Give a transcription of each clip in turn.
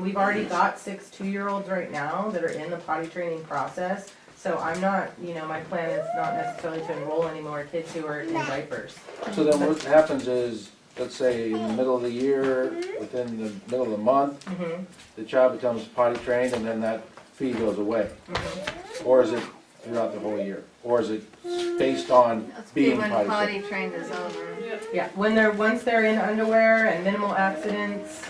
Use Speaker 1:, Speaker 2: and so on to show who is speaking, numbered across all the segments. Speaker 1: We've already got six two-year-olds right now that are in the potty training process, so I'm not, you know, my plan is not necessarily to enroll any more kids who are in diapers.
Speaker 2: So then what happens is, let's say in the middle of the year, within the middle of the month,
Speaker 3: Mm-hmm.
Speaker 1: Mhm.
Speaker 2: the child becomes potty trained and then that fee goes away?
Speaker 3: Mm-hmm.
Speaker 2: Or is it throughout the whole year? Or is it based on
Speaker 3: That's
Speaker 2: being
Speaker 3: when
Speaker 2: potty trained?
Speaker 3: potty trained is over.
Speaker 1: Yeah, when they're, once they're in underwear and minimal accidents,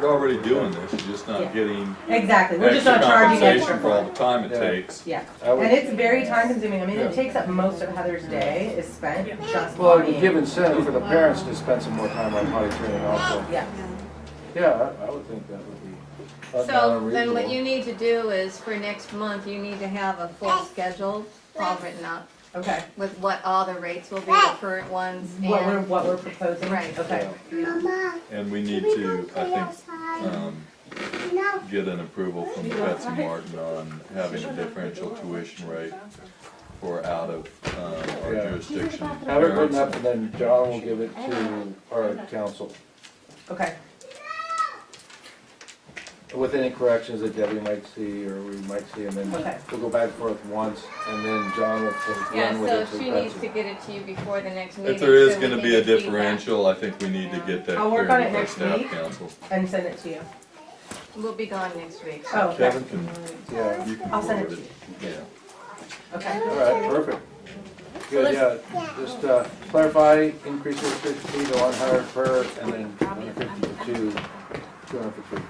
Speaker 4: You're already doing this, you're just
Speaker 1: Yeah.
Speaker 4: not getting
Speaker 1: exactly, we're just
Speaker 4: extra
Speaker 1: not charging extra
Speaker 4: compensation for
Speaker 1: for
Speaker 4: all
Speaker 1: it.
Speaker 4: the time it
Speaker 2: Yeah.
Speaker 4: takes.
Speaker 1: Yeah,
Speaker 2: I
Speaker 1: and
Speaker 2: would,
Speaker 1: it's very time-consuming, I mean, it
Speaker 2: Yeah.
Speaker 1: takes up most of Heather's day is spent just
Speaker 2: well, it
Speaker 1: pottying.
Speaker 2: would give incentive for the parents to spend some more time on potty training also.
Speaker 1: Yeah,
Speaker 2: Yeah, I, I would think that would be uh, not
Speaker 3: So then what you
Speaker 2: unreasonable.
Speaker 3: need to do is for next month, you need to have a full schedule all written up
Speaker 1: okay,
Speaker 3: with what all the rates will be, the current ones
Speaker 1: what we're,
Speaker 3: and.
Speaker 1: what we're proposing,
Speaker 3: Right.
Speaker 1: okay,
Speaker 5: Mama,
Speaker 4: And we
Speaker 5: can
Speaker 4: need
Speaker 5: we go
Speaker 4: to,
Speaker 5: play
Speaker 4: I think,
Speaker 5: outside?
Speaker 4: um,
Speaker 5: No,
Speaker 4: get an approval from Betsy Martin on having a differential tuition rate for out of, um, our
Speaker 2: Yeah.
Speaker 4: jurisdiction.
Speaker 2: Have it written
Speaker 4: parents.
Speaker 2: up and then John will give it to our council
Speaker 1: okay,
Speaker 2: with any corrections that Debbie might see or we might see and then
Speaker 1: okay.
Speaker 2: We'll go back and forth once, and then John will take-
Speaker 3: Yeah,
Speaker 2: run with
Speaker 3: so
Speaker 2: it. to
Speaker 3: she
Speaker 2: Betsy.
Speaker 3: needs to get it to you before the next meeting.
Speaker 4: If there is
Speaker 3: so we can
Speaker 4: gonna be a
Speaker 3: get feedback.
Speaker 4: differential, I think we need to get that
Speaker 1: I'll
Speaker 4: clear
Speaker 1: work
Speaker 4: with
Speaker 1: on it
Speaker 4: our
Speaker 1: next
Speaker 4: staff
Speaker 1: week.
Speaker 4: council.
Speaker 1: And send it to you,
Speaker 3: We'll be gone next week. so-
Speaker 1: oh, okay,
Speaker 4: Kevin can,
Speaker 2: Yeah,
Speaker 4: you can
Speaker 1: I'll send it
Speaker 4: forward
Speaker 1: to you,
Speaker 4: it. Yeah.
Speaker 1: okay.
Speaker 2: all right, perfect. Good, yeah, just uh, clarify, increase your fifty to one hundred per, and then one hundred fifty to two, two hundred for three.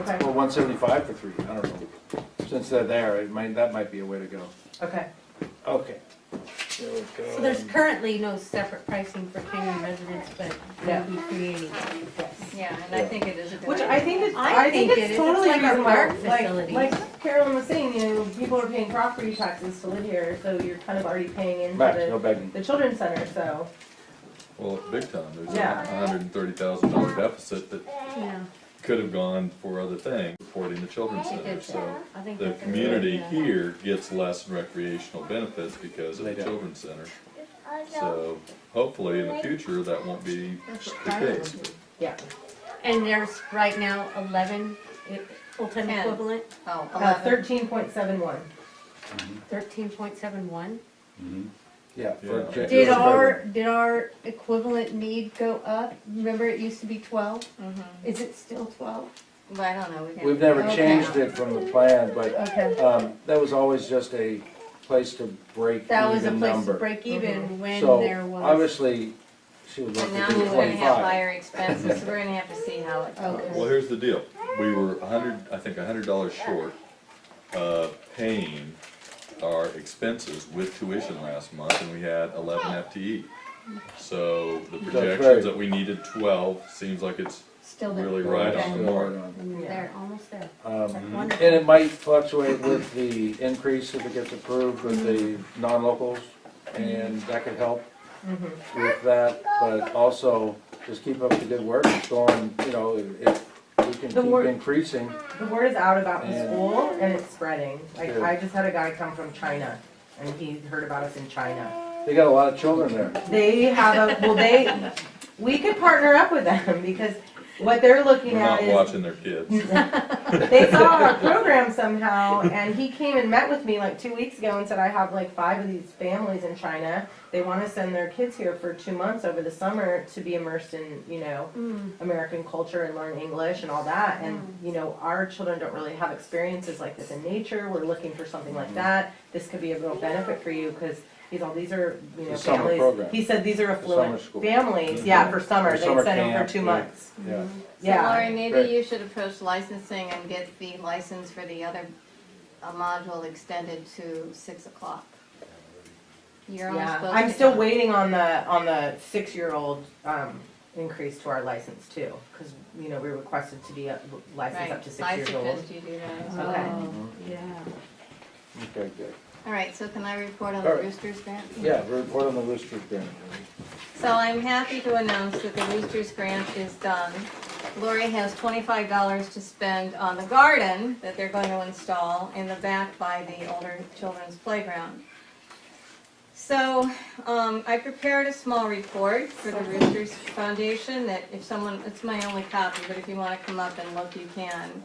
Speaker 1: Okay,
Speaker 2: Well, one seventy-five for three, I don't know. Since they're there, it might, that might be a way to go.
Speaker 1: okay.
Speaker 2: Okay.
Speaker 6: So there's currently no separate pricing for Canyon residents, but
Speaker 1: No.
Speaker 6: we'll be creating that.
Speaker 3: Yeah, and I think it is a good.
Speaker 1: Which
Speaker 3: idea.
Speaker 1: I think it's,
Speaker 6: I
Speaker 1: I think
Speaker 6: think it
Speaker 1: it's
Speaker 6: is.
Speaker 1: totally
Speaker 6: It's like our
Speaker 1: reasonable,
Speaker 6: park
Speaker 1: like,
Speaker 6: facilities.
Speaker 1: like Carolyn was saying, you know, people are paying property taxes to live here, so you're kind of already paying
Speaker 2: Max, no
Speaker 1: into
Speaker 2: begging.
Speaker 1: the, the children's center, so.
Speaker 4: Well, big time, there's
Speaker 1: Yeah.
Speaker 4: a hundred and thirty thousand dollar deficit that
Speaker 6: Yeah,
Speaker 4: could have gone for other things, supporting the children's
Speaker 6: I
Speaker 4: center,
Speaker 6: think
Speaker 4: so.
Speaker 6: so. I think
Speaker 4: The
Speaker 6: that's a good
Speaker 4: community
Speaker 6: idea.
Speaker 4: here gets less recreational benefits because of
Speaker 2: They
Speaker 4: the
Speaker 2: don't.
Speaker 4: children's center,
Speaker 5: I don't.
Speaker 4: so hopefully in the future that won't be
Speaker 6: That's what
Speaker 4: the
Speaker 6: Tyler would
Speaker 4: case.
Speaker 6: do.
Speaker 1: Yeah.
Speaker 6: And there's right now eleven i- full-time
Speaker 3: Ten.
Speaker 6: equivalent,
Speaker 3: Oh,
Speaker 1: Uh,
Speaker 3: 11.
Speaker 1: thirteen point seven one,
Speaker 6: thirteen point seven one.
Speaker 2: Yeah. for
Speaker 4: Yeah.
Speaker 2: Jan-
Speaker 6: Did our, did our equivalent need go up? Remember, it used to be twelve?
Speaker 3: Mhm.
Speaker 6: Is it still twelve?
Speaker 3: Well, I don't know. we can-
Speaker 2: We've never
Speaker 6: Okay.
Speaker 2: changed it from the plan, but
Speaker 6: Okay,
Speaker 2: um, that was always just a place to break even
Speaker 6: that
Speaker 2: number.
Speaker 6: was a place to break even when
Speaker 2: So
Speaker 6: there was.
Speaker 2: Obviously, she would
Speaker 3: But now
Speaker 2: love to
Speaker 3: we're
Speaker 2: do
Speaker 3: gonna have
Speaker 2: twenty-five.
Speaker 3: higher expenses, so we're gonna have to see how it
Speaker 6: Okay.
Speaker 3: goes.
Speaker 4: Well, here's the deal, we were a hundred, I think a hundred dollars short of paying our expenses with tuition last month, and we had eleven FTE. So the
Speaker 2: right.
Speaker 4: projections that we needed twelve, seems like it's
Speaker 6: Still there.
Speaker 4: really right
Speaker 6: Okay.
Speaker 4: on Mm-hmm. the mark.
Speaker 6: They're almost there.
Speaker 2: Um,
Speaker 6: Wonderful.
Speaker 2: And it might fluctuate with the increase if it gets approved with the
Speaker 6: Mm-hmm.
Speaker 2: non-locals, and that could help
Speaker 6: Mm-hmm.
Speaker 2: with that, but also, just keep up the good work, it's going, you know, if we can
Speaker 1: The work-
Speaker 2: keep increasing,
Speaker 1: the word is out about the
Speaker 2: And-
Speaker 1: school and it's spreading, like,
Speaker 2: Good.
Speaker 1: I just had a guy come from China, and he heard about us in China.
Speaker 2: they got a lot of children there.
Speaker 1: They have a, well, they, we could partner up with them, because what they're looking
Speaker 4: We're
Speaker 1: at
Speaker 4: not
Speaker 1: is.
Speaker 4: watching their kids.
Speaker 1: they saw our program somehow, and he came and met with me like two weeks ago and said, I have like five of these families in China. They want to send their kids here for two months over the summer to be immersed in, you know, American culture and learn English and all that. And, you know, our children don't really have experiences like this in nature. We're looking for something
Speaker 2: Mm-hmm.
Speaker 1: like that. This could be a real benefit for you because. He's all these are you know
Speaker 2: The summer
Speaker 1: families.
Speaker 2: program.
Speaker 1: He said these are affluent
Speaker 2: school. Mm-hmm.
Speaker 1: families. Yeah, for summer
Speaker 2: For
Speaker 1: they
Speaker 2: summer
Speaker 1: send them
Speaker 2: camp,
Speaker 1: for two
Speaker 2: yeah.
Speaker 1: months.
Speaker 6: Mm-hmm.
Speaker 2: Yeah,
Speaker 3: So
Speaker 1: Yeah.
Speaker 3: Lori, maybe
Speaker 2: Right.
Speaker 3: you should approach licensing and get the license for the other uh, module extended to six o'clock. You're only
Speaker 1: Yeah,
Speaker 3: supposed to.
Speaker 1: I'm still
Speaker 3: have-
Speaker 1: waiting on the, on the six-year-old, um, increase to our license too, cause, you know, we requested to be up- licensed up
Speaker 3: Right,
Speaker 1: to six
Speaker 3: I
Speaker 1: years old. Mm-hmm.
Speaker 3: suggest you do that as well.
Speaker 1: Okay.
Speaker 6: Oh,
Speaker 4: Mm-hmm.
Speaker 6: yeah.
Speaker 2: okay, good.
Speaker 3: All right, so can I report on the
Speaker 2: All right.
Speaker 3: Roosters grant?
Speaker 2: Yeah, report on the Rooster Grant.
Speaker 3: So I'm happy to announce that the Roosters grant is done. Lori has twenty-five dollars to spend on the garden that they're going to install in the back by the older children's playground. So, um, I prepared a small report for the Roosters Foundation that if someone, it's my only copy, but if you wanna come up and look, you can.